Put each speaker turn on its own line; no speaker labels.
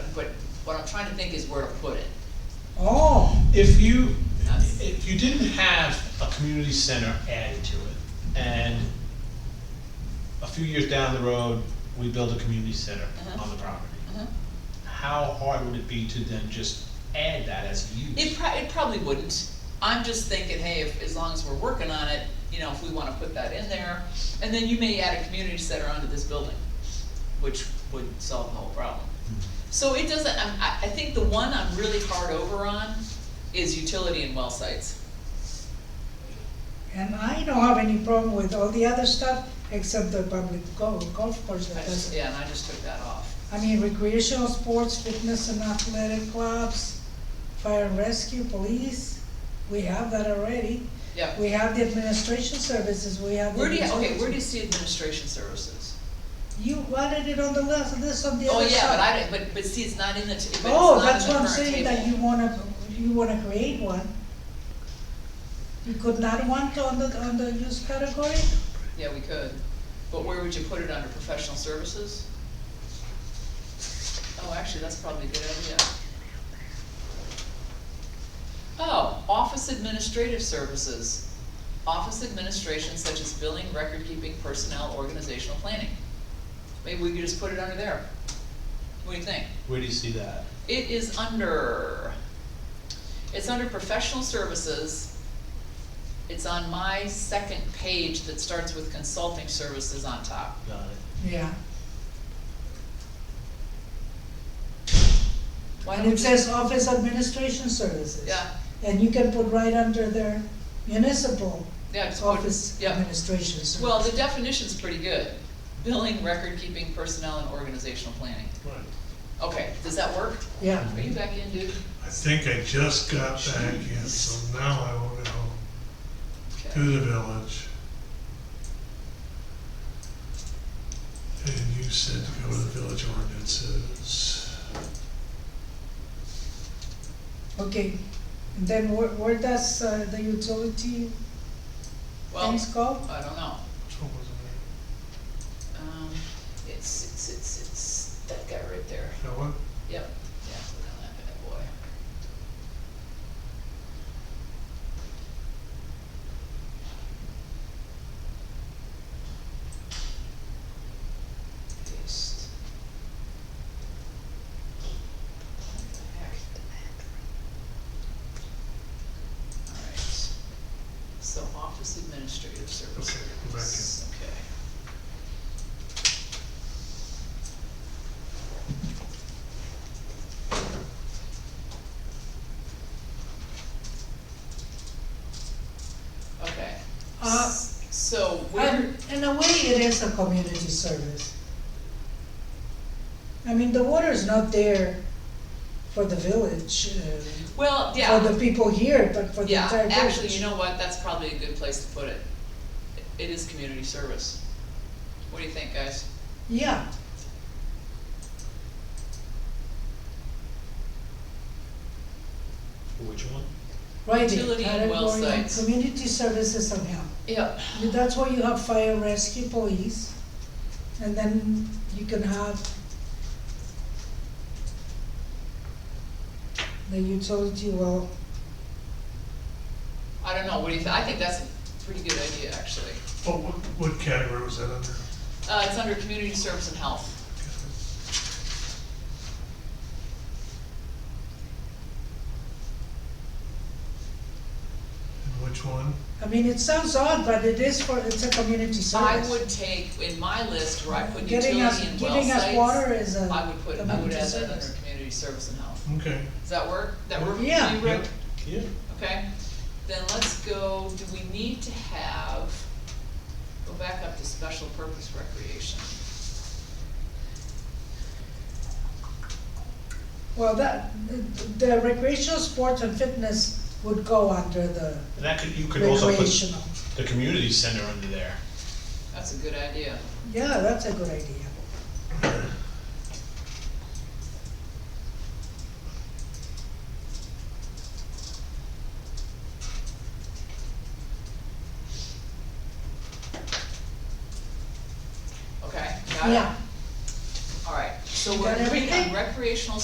what I'm trying to think is where to put it.
Oh,
If you,
That's-
if you didn't have a community center added to it, and a few years down the road, we build a community center
Uh-huh.
on the property,
Uh-huh.
how hard would it be to then just add that as a
It
use?
prob, it probably wouldn't. I'm just thinking, hey, if, as long as we're working on it, you know, if we wanna put that in there, and then you may add a community center onto this building, which would solve the whole problem.
Hmm.
So it doesn't, I'm- I, I think the one I'm really hard over on is utility and well sites.
and I don't have any problem with all the other stuff except the public golf, golf course
I
that
just,
doesn't.
yeah, and I just took that off.
I mean, recreational sports, fitness and athletic clubs, fire and rescue, police, we have that already.
Yeah.
We have the administration services, we have. the
Where do you, okay, where do you
resources.
see administration services?
You wanted it on the list, this on the
Oh,
other
yeah, but
side.
I, didn't- but, but see, it's not in the, t- but it's
Oh,
not
that's
in the
what I'm
current
saying, that
table.
you wanna, you wanna create one. You could not want on the, on the use category?
Yeah, we could, but where would you put it under professional services? Oh, actually, that's probably a good idea. Oh, office administrative services, office administration such as billing, record keeping, personnel, organizational planning. Maybe we could just put it under there. What do you think?
Where do you see that?
It is under, it's under professional services. It's on my second page that starts with consulting services on top.
Got it.
Yeah.
Why
And
don't
it
you,
says office administration services.
yeah,
And you can put right under there municipal
yeah, it's
office
yeah.
administration services.
Well, the definition's pretty good. Billing, record keeping, personnel and organizational planning.
Right.
Okay, does that work?
Yeah,
Are you back in, dude?
I think I just got back in, so now I will go to
Okay.
the village. And you said to go to the village ordinances.
okay. And then where, where does uh, the utility
Well,
things go?
I don't know.
Which one was it?
Um, it's, it's, it's, it's that guy right there.
That one?
Yep, yeah, look on that bad boy. Paste. What the heck? Alright, so office administrative services.
go back in.
Okay. Okay.
Uh,
S- So where,
And Um, in a way, it is a community service. I mean, the water is not there for the village, uh,
well,
for
yeah,
the people here, but for the
yeah,
entire village.
actually, you know what, that's probably a good place to put it. It is community service. What do you think, guys?
Yeah,
Which one?
right, there,
Utility and well
category of
sites.
community services and health.
Yeah.
You- That's why you have fire rescue police, and then you can have the utility well,
I don't know, what do you think? I think that's a pretty good idea, actually.
Oh, what, what category was that under?
Uh, it's under community service and health.
And which one?
I mean, it sounds odd, but it is for, it's a community
I
service.
would take, in my list where I put utility
Getting us,
and well
giving us water
sites,
is a
I would put, I would
community
add that under
service.
community service and health.
Okay,
Does that work? That work? for
Yeah.
you, Rick?
Yeah.
Okay, then let's go, do we need to have, go back up to special purpose recreation?
Well, that, the- the recreational sports and fitness would go under the
And that could, you could also put
recreational.
the community center under there.
That's a good idea.
Yeah, that's a good idea.
Okay, got it?
Yeah.
All right, so
You
we're
got
agreeing on
everything?
recreational